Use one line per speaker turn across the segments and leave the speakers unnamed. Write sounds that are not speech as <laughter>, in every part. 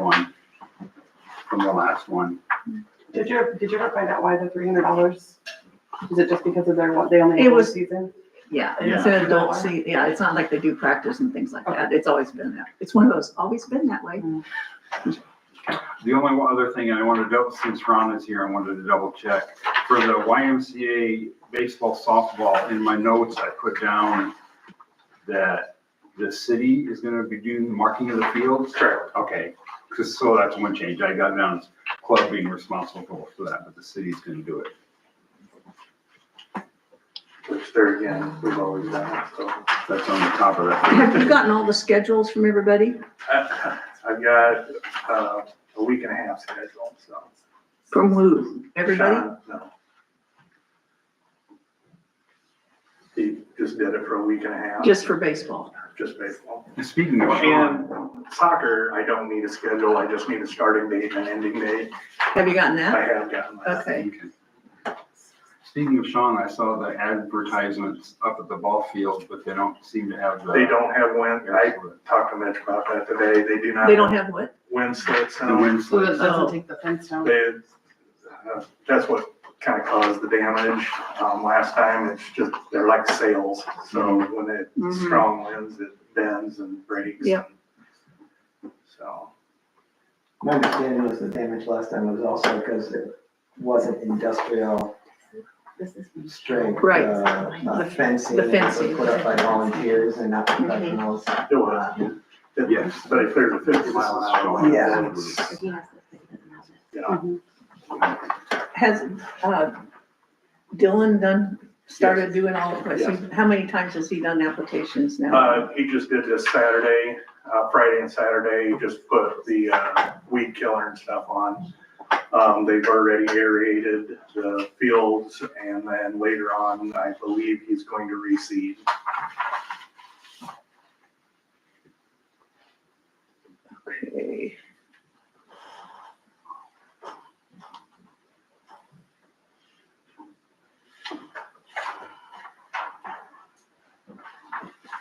one from the last one.
Did you, did you ever find out why the three hundred dollars? Is it just because of their, what, they only
It
have one
was-
season?
Yeah,
Yeah.
it's an adult seat, yeah, it's not like they do practice and things like that, it's always been that, it's one of those, always been that way.
The only one other thing, and I wanted to, double- since Ron is here, I wanted to double check. For the YMCA baseball softball, in my notes, I put down that the city is gonna be doing the marking of the fields. Correct. Okay, 'cause- so that's one change. I got down as club being responsible for that, but the city's gonna do it.
Which there again, we've always done it, so.
That's on the top of that.
Have you gotten all the schedules from everybody
I- I've got, uh, a week and a half scheduled, so.
from who? Everybody?
Sean, No. He just did it for a week and a half.
Just for baseball.
Just baseball.
Speaking of.
And soccer, I don't need a schedule, I just need a starting date and an ending date.
Have you gotten
I
that?
have gotten that.
Okay.
Speaking of Sean, I saw the advertisements up at the ball field, but they don't seem to have the.
They don't have wind, I talked to Mitch about that today, they do not.
They don't have what?
Wind slits.
The
now.
wind
So that
slits.
doesn't take the fence down?
They, uh, that's what kind of caused the damage, um, last time, it's just, they're like sails, so when it,
Mhm.
strong winds, it bends and breaks.
Yep.
So,
My understanding was the damage last time was also because it wasn't industrial
This is-
strength.
Right.
uh, uh, Fencing.
The
that was
fencing. Mm-hmm.
Put up by volunteers and not professionals.
it was, it-
Yes.
but it cleared a fifty mile an hour.
Yeah.
if he has this, it doesn't matter.
Yeah,
Has, uh, Dylan done, started doing all, of it? So how many times has he done applications now?
uh, he just did this Saturday, uh, Friday and Saturday, just put the, uh, weed killer and stuff on. Um, they've already aerated the fields, and then later on, I believe he's going to reseed.
Okay.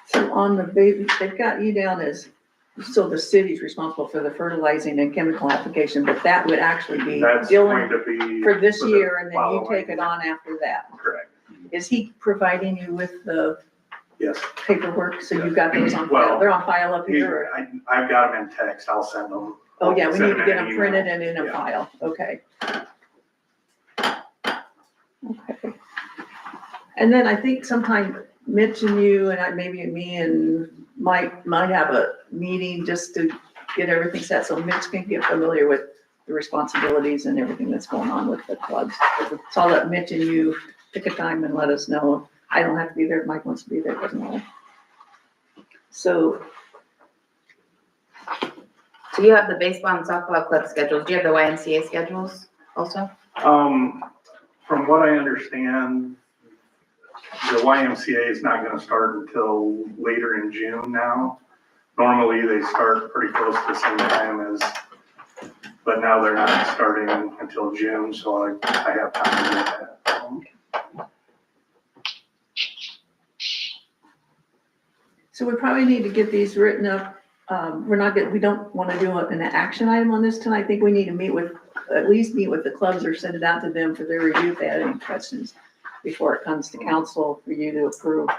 So on the baby, they've got you down as, so the city's responsible for the fertilizing and chemical application, but that would actually be
That's
Dylan
going to be.
for this
the
year, and then you
following.
take it on after that.
Correct,
Is he providing you with the
yes.
paperwork, so you've got those on file,
Well,
they're on file up
He-
here? or-
I, I've got them in text, I'll send them.
Oh, yeah, we
Send
need to get
in an
them
email.
printed and in a
Yeah.
file, okay. Okay. And then I think sometime Mitch and you and I, maybe me and Mike might have a meeting just to get everything set, so Mitch can get familiar with the responsibilities and everything that's going on with the clubs. So I'll let Mitch and you pick a time and let us know. I don't have to be there, if Mike wants to be there, doesn't matter. So
So you have the baseball and softball club schedules. Do you have the YMCA schedules also?
Um, from what I understand, the YMCA is not gonna start until later in June now. Normally, they start pretty close to the same time as, but now they're not starting until June, so I, I have time to do that.
So we probably need to get these written up. Um, we're not getting, we don't want to do an action item on this tonight. I think we need to meet with, at least meet with the clubs or send it out to them for their review if they had any questions before it comes to council for you to approve.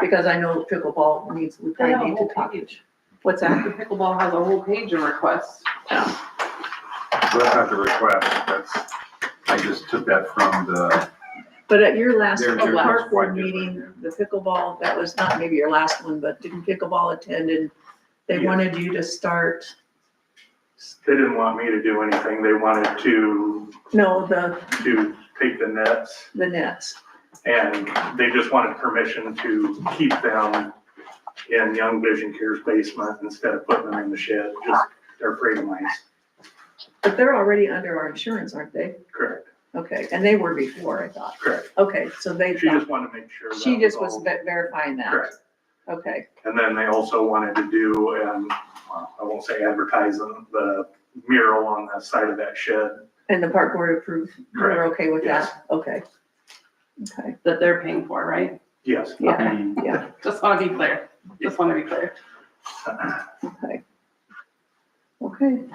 Because I know pickleball needs, we
They have a
probably need to
whole
talk.
page.
What's
The
that?
pickleball has a whole page of requests.
So That's not the request, that's, I just took that from the,
But at your last
They're- they're
park
just
board
quite different,
meeting, the pickleball, that was not maybe your last one, but didn't pickleball attend and they
Yeah.
wanted you to start,
They didn't want me to do anything, they wanted to,
no, the,
to take the nets
the nets.
And they just wanted permission to keep them in Young Vision Care's basement instead of putting them in the shed, just, they're afraid of mice.
But they're already under our insurance, aren't they?
Correct,
Okay, and they were before, I thought.
correct.
Okay, so they,
She just wanted to make sure. that
she just was
all-
ve- verifying that.
Correct.
Okay,
And then they also wanted to do, and I won't say advertising, the mural on the side of that shed.
and the park board approved, we're
Correct.
okay with that? Okay. Okay,
That they're paying for, right?
Yes.
yeah,
I
yeah,
Just wanna be
<laughs>
clear, just wanna be clear.
okay.